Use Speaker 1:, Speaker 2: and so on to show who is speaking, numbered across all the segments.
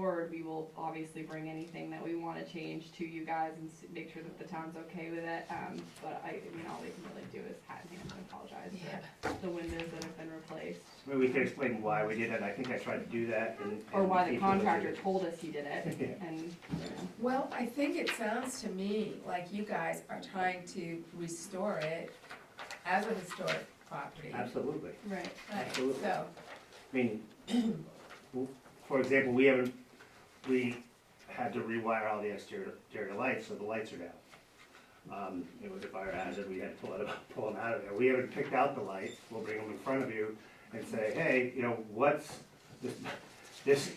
Speaker 1: we will obviously bring anything that we wanna change to you guys and s- make sure that the town's okay with it, um, but I, I mean, all we can really do is hat in hand and apologize for the windows that have been replaced.
Speaker 2: Maybe we could explain why we did it, I think I tried to do that and.
Speaker 1: Or why the
Speaker 2: people did it.
Speaker 1: contractor told us he did it,
Speaker 2: Yeah.
Speaker 1: and, you know.
Speaker 3: Well, I think it sounds to me like you guys are trying to restore it as a historic property.
Speaker 2: Absolutely,
Speaker 1: Right.
Speaker 3: Right,
Speaker 2: absolutely.
Speaker 3: so,
Speaker 2: I mean, for example, we haven't, we had to rewire all the exterior, exterior lights, so the lights are down. Um, it was a fire hazard, we had to pull it, pull them out of there, we haven't picked out the lights, we'll bring them in front of you and say, hey, you know, what's, this, this,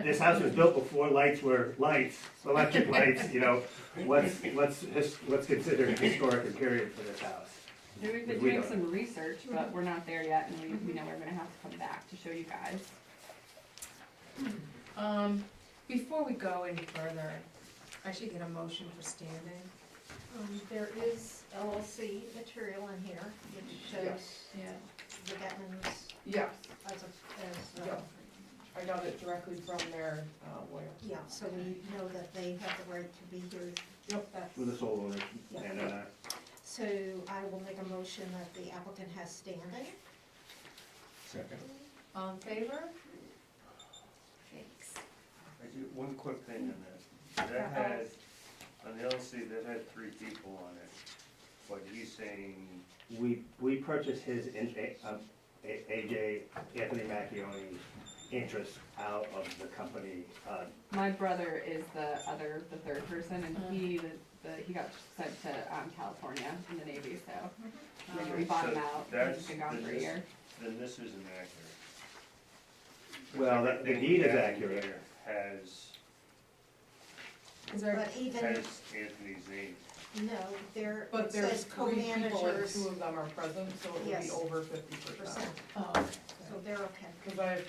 Speaker 2: this house was built before lights were lights, electric lights, you know, what's, what's, his- what's considered historic and period for this house?
Speaker 1: Yeah, We've been
Speaker 2: We
Speaker 1: doing
Speaker 2: don't.
Speaker 1: some research, but we're not there yet, and we, we know we're gonna have to come back to show you guys.
Speaker 3: um, before we go any further, I should get a motion for standing.
Speaker 4: Um, There is LLC material in here, which shows
Speaker 3: Yeah.
Speaker 4: the Getmans
Speaker 5: Yes,
Speaker 4: as a, as, uh,
Speaker 5: Yeah.
Speaker 4: a-
Speaker 5: I got it directly from their uh, lawyer.
Speaker 4: yeah, so we know that they have the right to be here.
Speaker 5: Yep.
Speaker 4: That's-
Speaker 2: With the sole owner, and, uh,
Speaker 4: So I will make a motion that the applicant has standing.
Speaker 2: uh,
Speaker 6: Second.
Speaker 3: All in favor?
Speaker 4: Thanks.
Speaker 7: I do, one quick thing on that. That had, on the LLC, that had three people on it, but he's saying,
Speaker 2: We, we purchased his, in- A- um, A- AJ, Anthony Macchione interest out of the company. uh,
Speaker 1: My brother is the other, the third person, and he, the, the- he got sent to, um, California in the Navy, so. um, We bought him
Speaker 7: So
Speaker 1: out, and
Speaker 7: that's
Speaker 1: he's been gone
Speaker 7: the
Speaker 1: for a
Speaker 7: dis-
Speaker 1: year.
Speaker 7: then this isn't accurate.
Speaker 2: Well, that- the
Speaker 7: Everything
Speaker 2: deed is
Speaker 7: we have
Speaker 2: accurate.
Speaker 7: here Has,
Speaker 3: Is there,
Speaker 4: But even,
Speaker 7: has Anthony's name.
Speaker 4: no, there,
Speaker 5: But
Speaker 4: it
Speaker 5: there's
Speaker 4: says
Speaker 5: three people and
Speaker 4: co-managers
Speaker 5: two of them are present, so it would be
Speaker 4: Yes.
Speaker 5: over fifty percent.
Speaker 4: percent,
Speaker 3: oh, okay.
Speaker 4: so they're okay.
Speaker 5: Cause I have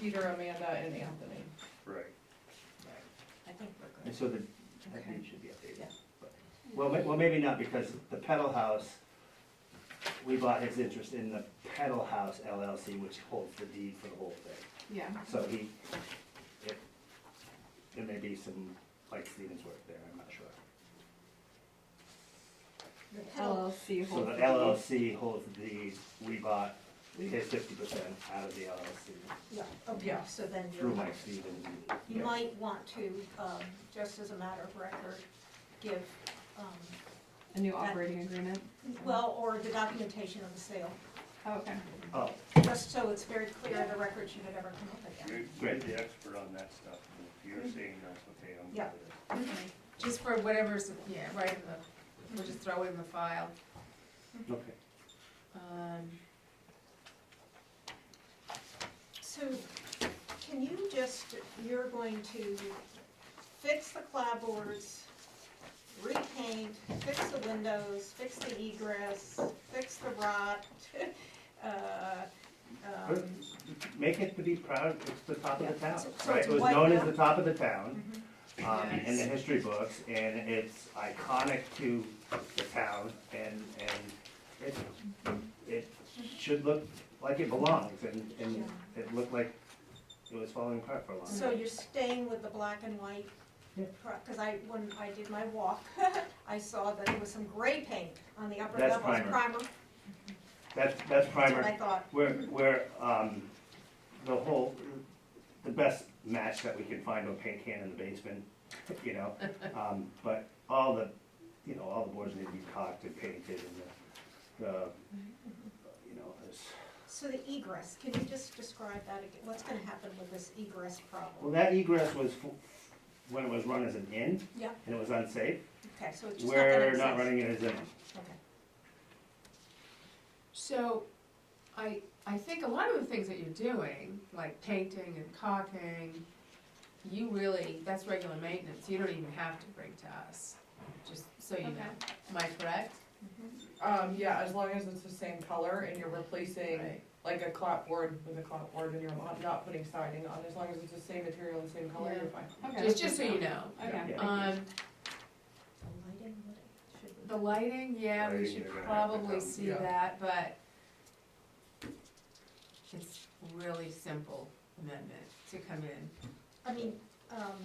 Speaker 5: Peter, Amanda and Anthony.
Speaker 7: Right.
Speaker 4: I think we're good.
Speaker 2: And so the, that
Speaker 3: Okay.
Speaker 2: deed should be updated.
Speaker 5: Yeah.
Speaker 2: But- Well, ma- well, maybe not, because the Pedal House, we bought his interest in the Pedal House LLC, which holds the deed for the whole thing.
Speaker 1: Yeah,
Speaker 2: So he, it, there may be some, like Stevens work there, I'm not sure.
Speaker 4: The pedal,
Speaker 1: LLC
Speaker 2: So
Speaker 1: holds.
Speaker 2: the
Speaker 1: deed.
Speaker 2: LLC holds the deed, we bought his fifty percent out of the LLC.
Speaker 4: yeah, okay,
Speaker 5: Yeah.
Speaker 4: so then you're.
Speaker 2: through Mike Stevens.
Speaker 4: You might want to, um, just as a matter of record, give, um,
Speaker 1: A new operating agreement.
Speaker 4: well, or the documentation of the sale,
Speaker 1: Oh, okay.
Speaker 2: Oh,
Speaker 4: just so it's very clear the record should have ever come up again.
Speaker 7: You're, you're the expert on that stuff. If you're saying that's okay, I'm good
Speaker 4: Yeah.
Speaker 7: with it.
Speaker 3: Okay. Just for whatever's, yeah, right in the, we'll just throw it in the file.
Speaker 2: okay.
Speaker 3: Um,
Speaker 4: So, can you just, you're going to fix the clapboards, repaint, fix the windows, fix the egress, fix the rot, uh, um,
Speaker 2: Make it to be proud, it's the top of the town,
Speaker 4: So- so
Speaker 2: right?
Speaker 4: it's
Speaker 2: It was
Speaker 4: white
Speaker 2: known as
Speaker 4: now?
Speaker 2: the top of the town,
Speaker 4: mhm.
Speaker 2: um, in the history books, and it's iconic to the town, and, and it, it should look like it belongs, and, and it looked like it was falling apart for a long time.
Speaker 4: So you're staying with the black and white?
Speaker 2: Yeah.
Speaker 4: Because I, when I did my walk, I saw that there was some gray paint on the upper
Speaker 2: That's
Speaker 4: levels.
Speaker 2: primer. That's, that's
Speaker 4: That's what I
Speaker 2: primer,
Speaker 4: thought.
Speaker 2: we're, we're, um, the whole, the best match that we can find on paint can in the basement, you know? Um, but all the, you know, all the boards need to be caulked and painted and the, the, you know, this.
Speaker 4: So the egress, can you just describe that again? What's gonna happen with this egress
Speaker 2: Well,
Speaker 4: problem?
Speaker 2: that egress was, f- when it was run as an inn.
Speaker 4: Yeah.
Speaker 2: And it was unsafe,
Speaker 4: Okay, so it's just not gonna
Speaker 2: we're
Speaker 4: exist.
Speaker 2: not running it as an,
Speaker 4: Okay.
Speaker 3: So, I, I think a lot of the things that you're doing, like painting and caulking, you really, that's regular maintenance, you don't even have to bring to us, just so you know. Am I correct? Mm-hmm.
Speaker 5: Um, yeah, as long as it's the same color and you're replacing like a clapboard with a clapboard and you're not, not putting siding on, as long as it's the same material and same color, you're
Speaker 3: Yeah.
Speaker 5: fine.
Speaker 1: Okay.
Speaker 3: Just, just so you know.
Speaker 1: Okay.
Speaker 2: Yeah.
Speaker 3: Um,
Speaker 4: The lighting, what it should be.
Speaker 3: the lighting, yeah, we
Speaker 7: Lighting,
Speaker 3: should
Speaker 7: they're gonna have to
Speaker 3: probably
Speaker 7: come,
Speaker 3: see
Speaker 5: yeah.
Speaker 3: that, but it's really simple amendment to come in.
Speaker 4: I mean, um,